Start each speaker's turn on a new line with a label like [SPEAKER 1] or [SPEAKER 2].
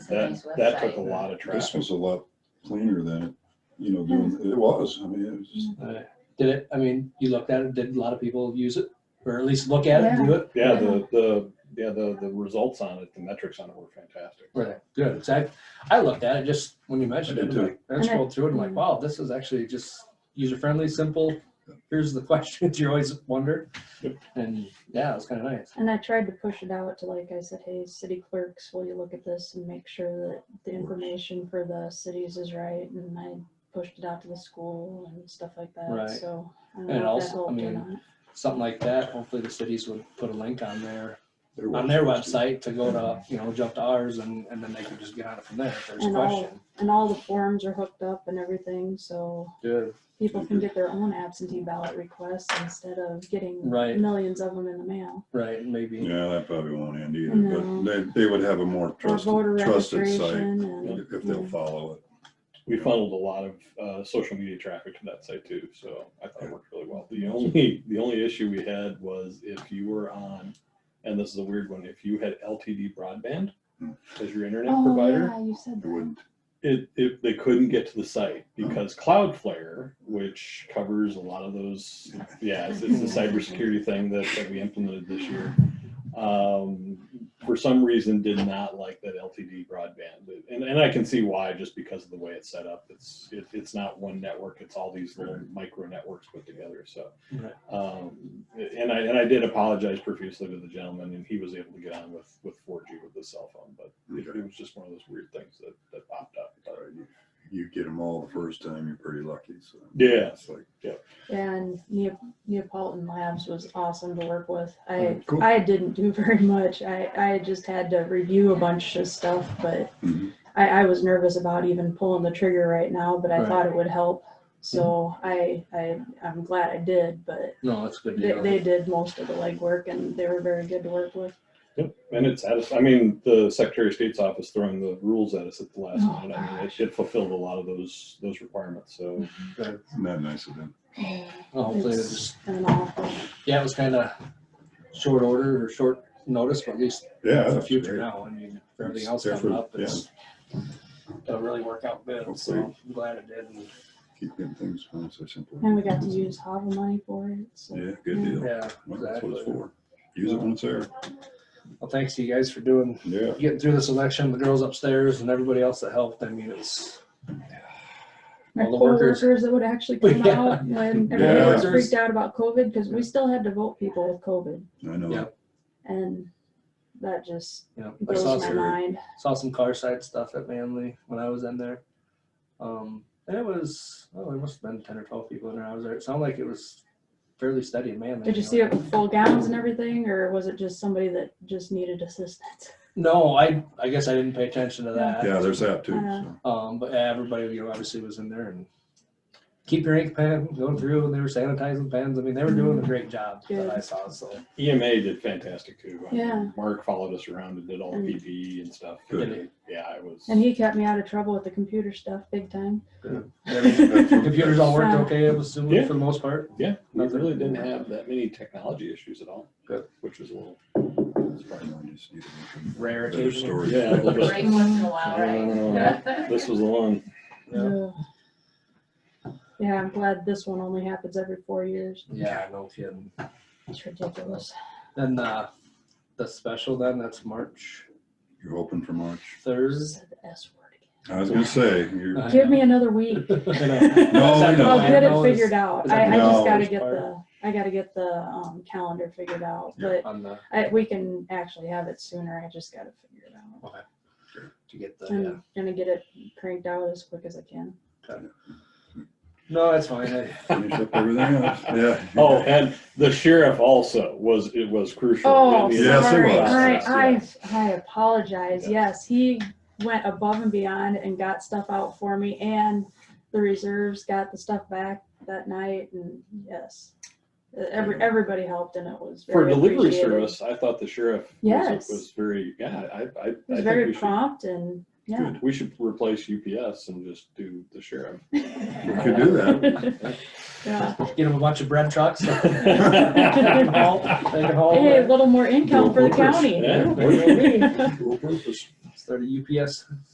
[SPEAKER 1] a nice
[SPEAKER 2] That, that took a
[SPEAKER 1] website.
[SPEAKER 2] lot of
[SPEAKER 3] This
[SPEAKER 2] traffic.
[SPEAKER 3] was a lot cleaner than, it, you know, doing, it was, I mean, it was just,
[SPEAKER 4] Uh, Did it, I mean, you looked at it, did a lot of people use it, or at least look at it and do it?
[SPEAKER 2] Yeah, the, the, yeah, the, the results on it, the metrics on it were fantastic.
[SPEAKER 4] Were they good? 'Cause I, I looked at it just when you mentioned
[SPEAKER 3] I
[SPEAKER 4] it,
[SPEAKER 3] did
[SPEAKER 4] I'm like, I
[SPEAKER 1] And I- Mm-hmm.
[SPEAKER 4] scrolled through it, and like, wow, this is actually just user-friendly, simple. Here's the questions you always wonder,
[SPEAKER 2] Yep.
[SPEAKER 4] and yeah, it was kind of nice.
[SPEAKER 1] And I tried to push it out to like, I said, hey, city clerks, will you look at this and make sure that the information for the cities is right? And I pushed it out to the school and stuff like
[SPEAKER 4] Right.
[SPEAKER 1] that, so. I
[SPEAKER 4] And
[SPEAKER 1] don't know if that
[SPEAKER 4] also, I
[SPEAKER 1] helped or
[SPEAKER 4] mean,
[SPEAKER 1] not.
[SPEAKER 4] Something like that, hopefully the cities would put a link on their,
[SPEAKER 3] there was.
[SPEAKER 4] on their website to go to, you know, jump to ours, and, and then they could just get on it from there if there's a
[SPEAKER 1] And all-
[SPEAKER 4] question.
[SPEAKER 1] And all the forms are hooked up and everything, so
[SPEAKER 4] Good,
[SPEAKER 1] people can get their own absentee ballot requests instead of getting
[SPEAKER 4] Right.
[SPEAKER 1] millions of them in the mail.
[SPEAKER 4] right, maybe,
[SPEAKER 3] Yeah, that probably won't end either,
[SPEAKER 1] No.
[SPEAKER 3] but they, they would have a more
[SPEAKER 1] Or voter
[SPEAKER 3] trusted, trusted site
[SPEAKER 1] registration and.
[SPEAKER 3] if they'll follow it.
[SPEAKER 2] We funneled a lot of, uh, social media traffic to that site too, so I thought it worked really well. The only, the only issue we had was if you were on, and this is a weird one, if you had LTD broadband as your internet
[SPEAKER 1] Oh,
[SPEAKER 2] provider,
[SPEAKER 1] yeah, you said
[SPEAKER 3] It
[SPEAKER 1] that.
[SPEAKER 3] wouldn't,
[SPEAKER 2] it, it they couldn't get to the site because Cloudflare, which covers a lot of those, yeah, it's, it's the cybersecurity thing that, that we implemented this year. Um, for some reason, did not like that LTD broadband, and, and I can see why, just because of the way it's set up. It's it, it's not one network; it's all these little micro networks put together. So,
[SPEAKER 4] Right.
[SPEAKER 2] um, and I and I did apologize profusely to the gentleman, and he was able to get on with with 4G with his cell phone, but it,
[SPEAKER 3] Okay.
[SPEAKER 2] it was just one of those weird things that, that popped up. But
[SPEAKER 3] Right, you- you get them all the first time, you're pretty lucky, so.
[SPEAKER 2] Yeah.
[SPEAKER 3] It's like,
[SPEAKER 1] And Neo- Neapolitan Labs was awesome to work with.
[SPEAKER 4] Hmm.
[SPEAKER 1] I,
[SPEAKER 3] Mm, cool.
[SPEAKER 1] I didn't do very much. I, I just had to review a bunch of stuff, but
[SPEAKER 3] mhm,
[SPEAKER 1] I, I was nervous about even pulling the trigger right now, but I
[SPEAKER 4] Right. Mhm.
[SPEAKER 1] thought it would help. So I, I, I'm glad I did, but
[SPEAKER 4] no, that's a good.
[SPEAKER 1] they,
[SPEAKER 4] deal.
[SPEAKER 1] they did most of the legwork and they were very good to work with.
[SPEAKER 2] yep. and it's at us. I mean, the Secretary of State's office throwing the rules at us at the last
[SPEAKER 1] Oh,
[SPEAKER 2] minute. I mean, it, it fulfilled a lot of those those requirements. So
[SPEAKER 4] Good.
[SPEAKER 3] Isn't that nice of them?
[SPEAKER 1] Yeah,
[SPEAKER 4] Well, Hopefully,
[SPEAKER 1] It's-
[SPEAKER 4] it's just
[SPEAKER 1] And awful.
[SPEAKER 4] Yeah, it was kind of short order or short notice, but at least
[SPEAKER 3] Yeah.
[SPEAKER 4] for the
[SPEAKER 3] that's
[SPEAKER 4] future
[SPEAKER 3] great.
[SPEAKER 4] now, I mean, for everything
[SPEAKER 3] It's
[SPEAKER 4] else coming
[SPEAKER 3] different,
[SPEAKER 4] up, it's, it'll really work out good, so
[SPEAKER 3] Hopefully.
[SPEAKER 4] I'm glad it did. and,
[SPEAKER 3] Keep getting things going so simple.
[SPEAKER 1] And we got to use HAVA money for it, so.
[SPEAKER 3] Yeah, good deal.
[SPEAKER 4] Yeah,
[SPEAKER 3] Well, That's what it's
[SPEAKER 4] exactly.
[SPEAKER 3] for. Use it when it's there.
[SPEAKER 4] Well, thanks to you guys for doing,
[SPEAKER 3] Yeah.
[SPEAKER 4] getting through this election, the girls upstairs and everybody else that helped, I mean, it's,
[SPEAKER 1] My
[SPEAKER 4] All the workers.
[SPEAKER 1] coworkers that would actually come
[SPEAKER 4] Yeah.
[SPEAKER 1] out when
[SPEAKER 3] Yeah.
[SPEAKER 1] everybody was freaked out about COVID, because we still had to vote people with COVID.
[SPEAKER 3] I know.
[SPEAKER 4] Yeah.
[SPEAKER 1] And that just
[SPEAKER 4] you know, I
[SPEAKER 1] blows
[SPEAKER 4] saw,
[SPEAKER 1] my
[SPEAKER 4] some-
[SPEAKER 3] Awesome.
[SPEAKER 1] mind.
[SPEAKER 4] saw some car side stuff at Manly when I was in there. Um, and it was, oh, there must have been ten or twelve people in there, I was there, it sounded like it was fairly steady in Manly.
[SPEAKER 1] Did you
[SPEAKER 4] know.
[SPEAKER 1] see it with full gowns and everything, or was it just somebody that just needed assistance?
[SPEAKER 4] No, I, I guess I didn't pay attention to that.
[SPEAKER 3] Yeah, there's that too.
[SPEAKER 1] Uh,
[SPEAKER 3] so.
[SPEAKER 4] Um, but yeah, everybody, you know, obviously was in there and keep your ink pen going through and they were sanitizing pens. I mean, they were doing a great job that I saw. So
[SPEAKER 2] EMA E did fantastic too. I mean,
[SPEAKER 1] Yeah.
[SPEAKER 2] Mark followed us around and did all the
[SPEAKER 1] Mm.
[SPEAKER 2] PPE and stuff.
[SPEAKER 3] Good.
[SPEAKER 2] And, yeah, it was.
[SPEAKER 1] And he kept me out of trouble with the computer stuff big time.
[SPEAKER 4] everything- computers all worked okay, I'm assuming,
[SPEAKER 2] Yeah.
[SPEAKER 4] for the most part.
[SPEAKER 2] yeah, we
[SPEAKER 4] Nothing.
[SPEAKER 2] really didn't have that many technology issues at all.
[SPEAKER 4] Good.
[SPEAKER 2] Which was a little.
[SPEAKER 3] I just need to make a
[SPEAKER 4] Rare
[SPEAKER 3] Better
[SPEAKER 4] occasion.
[SPEAKER 3] story.
[SPEAKER 2] Yeah, a little bit.
[SPEAKER 5] Right, once in a while,
[SPEAKER 2] No, no, no,
[SPEAKER 5] right?
[SPEAKER 2] This was the one.
[SPEAKER 4] Yeah.
[SPEAKER 1] Ugh. Yeah, I'm glad this one only happens every four years.
[SPEAKER 4] Yeah, no kidding.
[SPEAKER 1] It's ridiculous.
[SPEAKER 4] Then uh, the special then, that's March
[SPEAKER 3] You're open for March.
[SPEAKER 4] Thursday.
[SPEAKER 1] Said the S word again.
[SPEAKER 3] I was gonna say, you're,
[SPEAKER 4] I
[SPEAKER 1] Give me
[SPEAKER 4] know.
[SPEAKER 1] another week.
[SPEAKER 4] I know.
[SPEAKER 3] No, I Oh, know.
[SPEAKER 1] I'll get
[SPEAKER 4] I
[SPEAKER 1] it
[SPEAKER 4] know it's-
[SPEAKER 1] figured out.
[SPEAKER 4] is
[SPEAKER 1] I,
[SPEAKER 4] that
[SPEAKER 1] I just
[SPEAKER 3] No.
[SPEAKER 1] gotta get the, I gotta get the, um, calendar figured out,
[SPEAKER 3] Yeah.
[SPEAKER 1] but
[SPEAKER 4] On the,
[SPEAKER 1] I, we can actually have it sooner. I just gotta figure it out.
[SPEAKER 4] to get the, yeah.
[SPEAKER 1] I'm gonna get it cranked out as quick as I can.
[SPEAKER 4] No, that's fine. I-
[SPEAKER 3] finish up everything else. Yeah.
[SPEAKER 2] Oh, and the sheriff also was, it was crucial.
[SPEAKER 1] Oh,
[SPEAKER 2] in the
[SPEAKER 3] Yes, it
[SPEAKER 1] sorry.
[SPEAKER 3] was.
[SPEAKER 1] All right, I,
[SPEAKER 2] Yeah.
[SPEAKER 1] I apologize. Yes, he went above and beyond and got stuff out for me and the reserves got the stuff back that night and yes. Uh, Every, everybody helped and it was
[SPEAKER 2] For
[SPEAKER 1] very
[SPEAKER 2] delivery
[SPEAKER 1] appreciated.
[SPEAKER 2] service, I thought the sheriff was,
[SPEAKER 1] Yes.
[SPEAKER 2] was very, yeah, I, I. I
[SPEAKER 1] It was
[SPEAKER 2] think
[SPEAKER 1] very
[SPEAKER 2] we should-
[SPEAKER 1] prompt and, yeah.
[SPEAKER 2] We should replace UPS and just do the sheriff.
[SPEAKER 3] We could do that.
[SPEAKER 1] Yeah.
[SPEAKER 4] Get them a bunch of bread trucks. They can haul-
[SPEAKER 2] Yeah,
[SPEAKER 4] they can haul
[SPEAKER 1] Hey, a
[SPEAKER 4] bread.
[SPEAKER 1] little more income for the county.
[SPEAKER 2] what do you mean?
[SPEAKER 3] Dual purpose.
[SPEAKER 4] started UPS